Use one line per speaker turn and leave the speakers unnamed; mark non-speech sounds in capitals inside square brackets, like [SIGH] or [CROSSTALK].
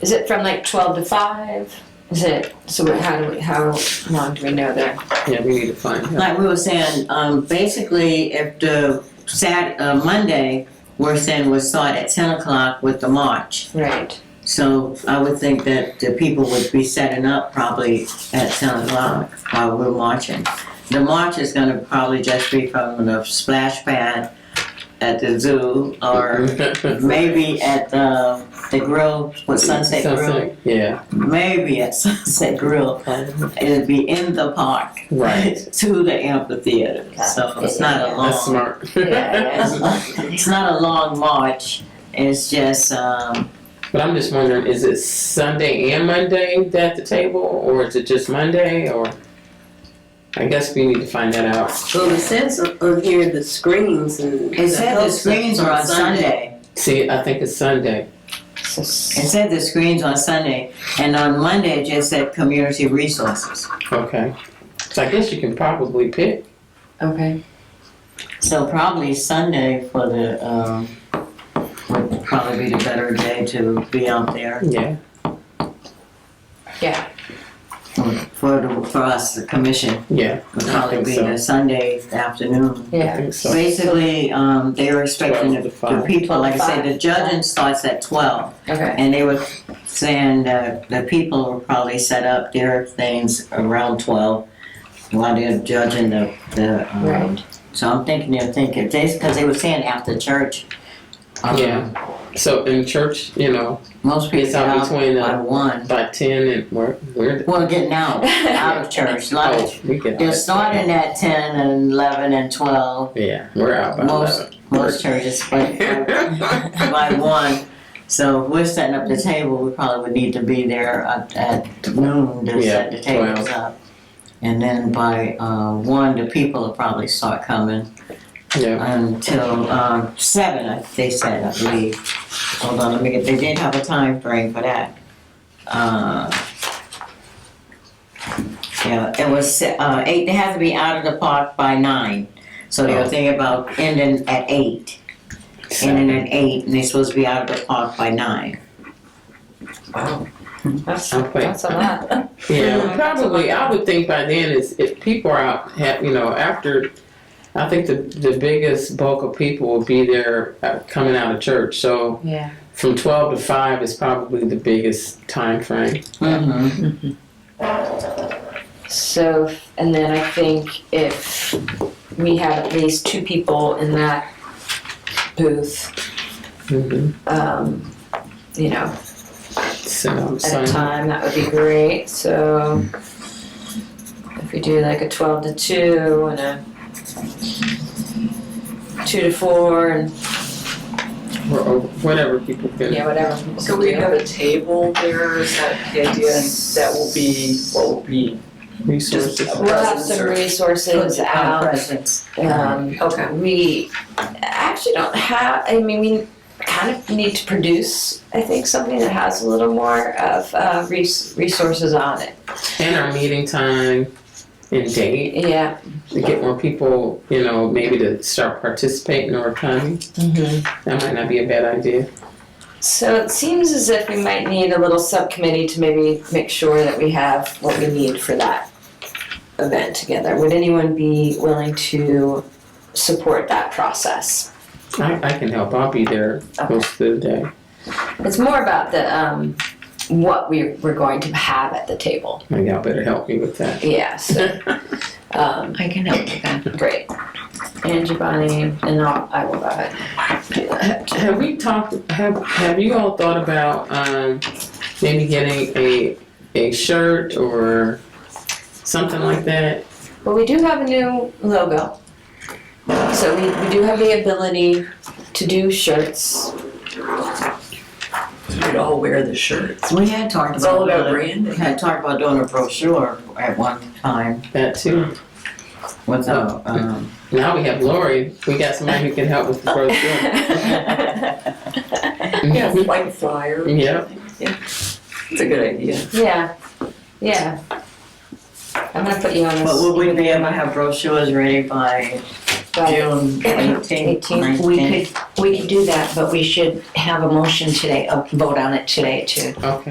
Is it from like twelve to five? Is it, so what- how do we, how long do we know that?
Yeah, we need to find out.
Like we were saying, um, basically, if the Sat, uh, Monday, we're saying we're start at ten o'clock with the march.
Right.
So I would think that the people would be setting up probably at ten o'clock while we're marching. The march is gonna probably just be from the splash pad at the zoo or maybe at, uh, the grill, what Sunset Grill?
Sunset, Yeah,
Maybe at [LAUGHS] Sunset Grill. It'd be in the park.
right.
[LAUGHS] to the amphitheater. So it's not a
That's
long,
smart.
Yeah,
[LAUGHS] it's not a long march. It's just, um,
[LAUGHS] But I'm just wondering, is it Sunday and Monday at the table, or is it just Monday, or? I guess we need to find that out.
Well, it says on here the screens and.
it said the screens are on Sunday.
See, I think it's Sunday.
So
It said the screens on Sunday, and on Monday it just said community resources.
Okay. So I guess you can probably pick.
Okay.
So probably Sunday for the, um, would probably be the better day to be out there
Yeah.
for, for the- for us, the commission.
Yeah.
Would
I
probably
think
be
so.
the Sunday afternoon.
I
Yeah,
think so.
Basically, um, they were expecting the, the people, like I said, the judging starts at twelve,
okay. [LAUGHS]
and they were saying that the people will probably set up their things around twelve while they're judging the, the, um,
Right.
so I'm thinking they're thinking, they, cause they were saying after church. um,
Yeah. So in church, you know,
Most people
it's
get
out
out
between
by
uh,
one,
by ten and we're we're.
well, getting out, out of
[LAUGHS]
church,
Oh,
like,
we get.
they're
out.
starting at ten and eleven and twelve,
Yeah, we're out by
Most-
eleven.
most churches,
[LAUGHS]
but by one. So if we're setting up the table, we probably would need to be there at, at noon to set the
Yeah,
tables up. And then by uh, one, the people will probably start coming
yeah.
until um, seven. I- They said, I believe. Hold on, let me get. They did have a time frame for that. Uh, yeah, it was se- uh, eight. They had to be out of the park by nine. So they were thinking about ending at eight in at eight, and they're supposed to be out of the park by nine.
That's,
Okay.
that's a lot.
Yeah, probably. I would think by then is if people are out, have, you know, after. I think the the biggest bulk of people will be there uh, coming out of church. So
Yeah.
from twelve to five is probably the biggest time frame.
Mm-hmm.
So, and then I think if we have at least two people in that booth,
Mm-hmm.
um, you know,
So,
at a
so
time, that would be great, so. If we do like a twelve to two and a two to four and,
or, or whatever people can.
yeah, whatever. people
So
can
we
do.
have a table there, is that the idea, and that will be, what will be?
Resources.
Just-
We'll have some resources out. Um,
Okay.
we actually don't have, I mean, we kind of need to produce, I think, something that has a little more of, uh, res- resources on it.
and our meeting time and date
Yeah.
to get more people, you know, maybe to start participating or coming.
Mm-hmm.
That might not be a bad idea.
So it seems as if we might need a little subcommittee to maybe make sure that we have what we need for that event together. Would anyone be willing to support that process?
I, I can help. I'll be there most of the day.
It's more about the um, what we we're going to have at the table.
Now y'all better help me with that.
Yes.
[LAUGHS]
um,
I can help with that.
great. Angie Bonnie and I'll, I will go ahead. Do that.
Have we talked? Have Have you all thought about um, maybe getting a a shirt or something like that?
But we do have a new logo. So we, we do have the ability to do shirts.
We'd all wear the shirts.
We had talked
It's all
about,
about
doing- we
branding.
had talked about doing a brochure at one time
That too.
with a, um,
Now we have Lori. We got somebody who can help with the [LAUGHS]
[LAUGHS]
brochure.
yeah.
Yeah, like flyer,
Yeah.
it's a good idea.
Yeah. I'm gonna put you on this.
but would we be able to have brochures ready by
Right.
June eighteenth,
Eighteenth.
We
nineteenth?
could, we could do that, but we should have a motion today, a vote on it today too.
Okay.